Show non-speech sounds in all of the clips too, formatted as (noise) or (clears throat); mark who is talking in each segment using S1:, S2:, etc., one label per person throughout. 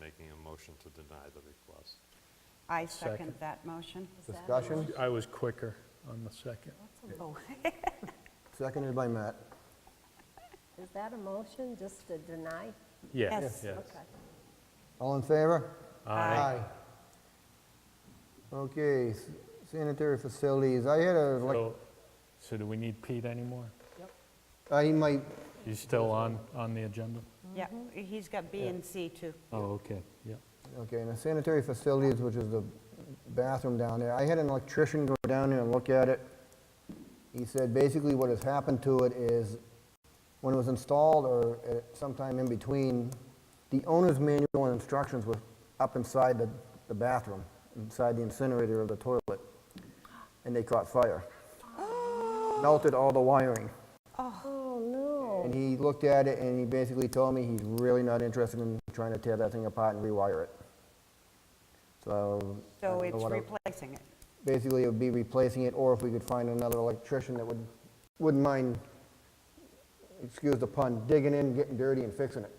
S1: making a motion to deny the request.
S2: I
S3: Second.
S2: second that motion.
S4: Discussion,
S3: I was quicker on the second.
S2: Oh,
S4: seconded by Matt.
S5: Is that a motion, just to deny?
S3: Yeah,
S2: Yes.
S3: yes.
S5: Okay.
S4: All in favor?
S2: Aye.
S4: Okay, s- sanitary facilities, I had a, like,
S3: So, so do we need Pete anymore?
S4: I might,
S3: He's still on, on the agenda?
S2: Yeah, he's got B and C too.
S3: Oh, okay, yeah.
S4: okay, and the sanitary facilities, which is the bathroom down there, I had an electrician go down there and look at it. He said basically what has happened to it is, when it was installed or at sometime in between, the owner's manual and instructions were up inside the, the bathroom, inside the incinerator of the toilet, and they caught fire.
S2: Oh.
S4: Melted all the wiring.
S5: Oh, no.
S4: And he looked at it and he basically told me he's really not interested in trying to tear that thing apart and rewire it. So. I
S2: So
S4: don't know
S2: it's
S4: what I-
S2: replacing it.
S4: Basically, it would be replacing it, or if we could find another electrician that would, wouldn't mind, excuse the pun, digging in, getting dirty and fixing it.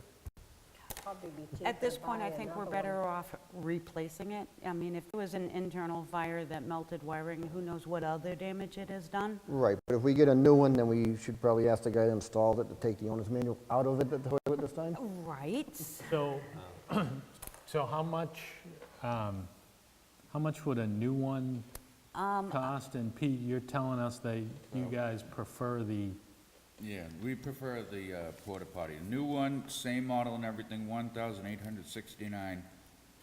S5: Probably be
S2: At
S5: cheaper
S2: this point, I
S5: buy
S2: think we're
S5: another one.
S2: better off replacing it. I mean, if it was an internal fire that melted wiring, who knows what other damage it has done?
S4: Right, but if we get a new one, then we should probably ask the guy that installed it to take the owner's manual out of it, the toilet this time?
S2: Right?
S3: So, (clears throat) so how much, um, how much would a new one cost? And Pete, you're telling us that you guys prefer the,
S6: Yeah, we prefer the uh, porta potty. New one, same model and everything, one thousand eight hundred sixty-nine,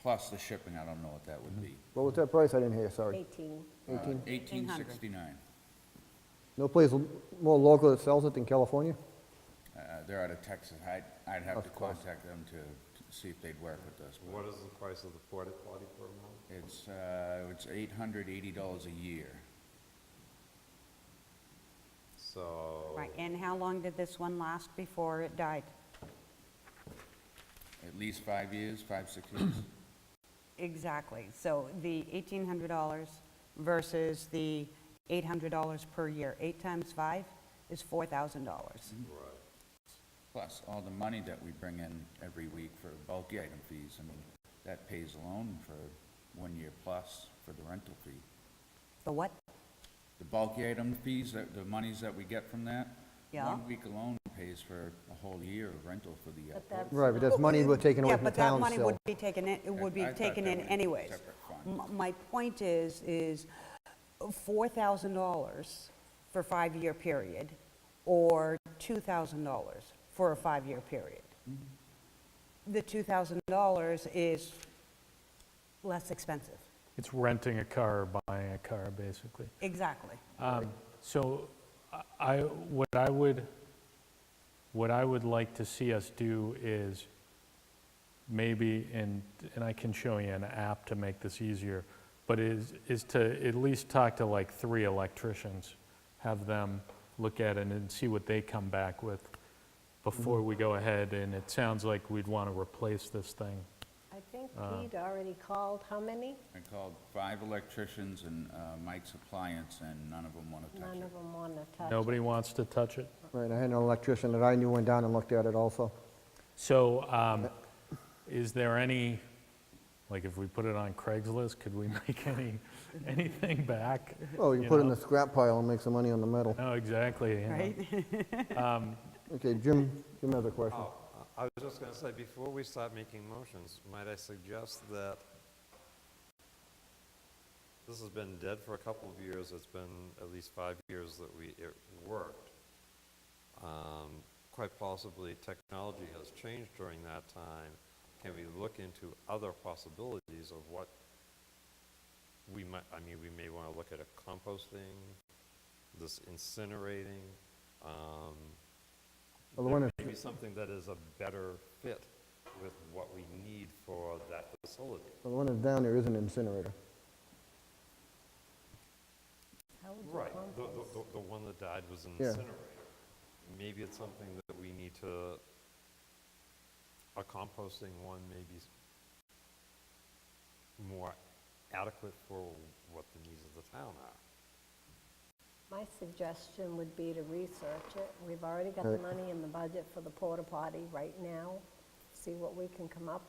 S6: plus the shipping, I don't know what that would be. Uh,
S4: What was that price? I didn't hear, sorry.
S5: 18.
S4: Mm-hmm. Eighteen?
S6: Eighteen sixty-nine.
S4: No place more local that sells it than California?
S6: Uh, They're out of Texas, I'd, I'd have
S4: Of
S6: to
S4: course.
S6: contact them to to see if they'd work with us. but
S1: What is the price of the porta potty per month?
S6: It's, uh, it's eight hundred eighty dollars a year.
S1: So.
S2: Right, and how long did this one last before it died?
S6: At least five years, five, six
S4: (clears throat)
S6: years.
S2: Exactly. So the $1,800 versus the $800 per year, eight times five is $4,000.
S6: Plus, all the money that we bring in every week for bulky item fees, I mean, that pays alone for one year plus for the rental fee.
S2: The what?
S6: The bulky item fees, that- the monies that we get from that?
S2: Yeah.
S6: One week alone pays for a whole year of rental for the. uh,
S5: But that's-
S4: Right, but that's money we're taking away
S2: Yeah,
S4: from the
S2: but that
S4: town
S2: money
S4: still.
S2: would be taken in, it would
S6: I
S2: be
S6: thought
S2: taken
S6: that
S2: in
S6: was a
S2: anyways.
S6: separate fund.
S2: M- My point is, is $4,000 for a five-year period, or $2,000 for a five-year period.
S6: Mm-hmm.
S2: The $2,000 is less expensive,
S3: it's renting a car or buying a car, basically?
S2: exactly.
S3: Um, So I, what I would, what I would like to see us do is maybe, and, and I can show you an app to make this easier, but is, is to at least talk to like three electricians, have them look at it and see what they come back with before we go ahead, and it sounds like we'd want to replace this thing.
S5: I think Pete already called, how many?
S6: I called five electricians and uh, Mike's Appliance, and none of them want to touch
S5: None
S6: it.
S5: of them want to touch.
S3: Nobody wants to touch it?
S4: Right, I had an electrician that I knew went down and looked at it also.
S3: So, um, is there any, like, if we put it on Craigslist, could we (laughs) make any, anything back?
S4: Oh, you put it in
S3: know?
S4: the scrap pile and make some money on the metal.
S3: No, exactly, you know.
S4: Okay, Jim, Jim has a question.
S1: Oh, I I was just going to say, before we start making motions, might I suggest that this has been dead for a couple of years, it's been at least five years that we, it worked. Um, Quite possibly, technology has changed during that time. Can we look into other possibilities of what we might, I mean, we may want to look at a composting, this incinerating, um,
S4: Well, the one that-
S1: maybe something that is a better fit with what we need for that facility.
S4: well, the one that's down there is an incinerator.
S5: How would you
S1: Right, the,
S5: compost?
S1: the, the- the one that died was an
S4: Yeah.
S1: incinerator. Maybe it's something that we need to, a composting one maybe s- more adequate for what the needs of the town are.
S5: My suggestion would be to research it. We've already got the money in the budget for the porta potty right now. See what we can come up